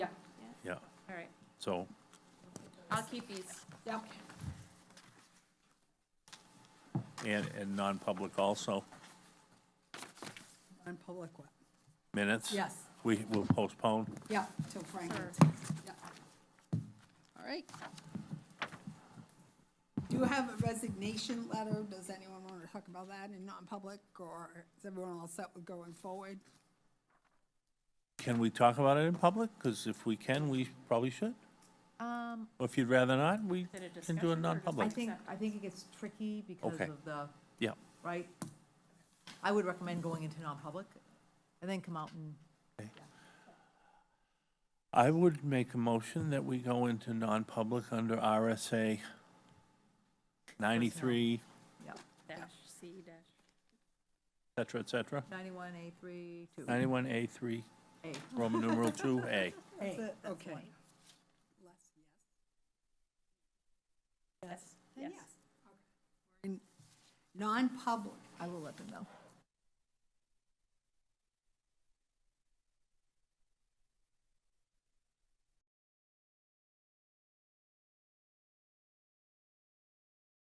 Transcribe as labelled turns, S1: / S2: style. S1: All right,
S2: So,
S1: I'll keep these.
S3: Yep.
S2: and, and non-public also,
S3: On public what?
S2: minutes?
S3: Yes.
S2: We will postpone.
S3: Yeah, till Frank.
S1: Sure.
S3: Yeah.
S4: All right.
S3: Do you have a resignation letter? Does anyone want to talk about that in non-public, or is everyone all set with going forward?
S2: Can we talk about it in public? Because if we can, we probably should.
S1: Um,
S2: Or if you'd rather not, we
S1: Is it a
S2: can
S1: discussion
S2: do
S1: or
S2: it
S1: just-
S2: non-public.
S5: I think, I think it gets tricky because
S2: Okay.
S5: of the,
S2: Yeah,
S5: right? I would recommend going into non-public and then come out and,
S2: I would make a motion that we go into non-public under RSA 93,
S5: yeah,
S1: dash C dash.
S2: et cetera, et cetera.
S5: 91A3, 2.
S2: 91A3,
S5: A.
S2: Roman numeral 2A.
S3: Hey,
S5: it, that's
S3: okay.
S5: fine.
S1: Yes.
S3: Then yes. Okay. We're in Non-public.
S5: I will let them know.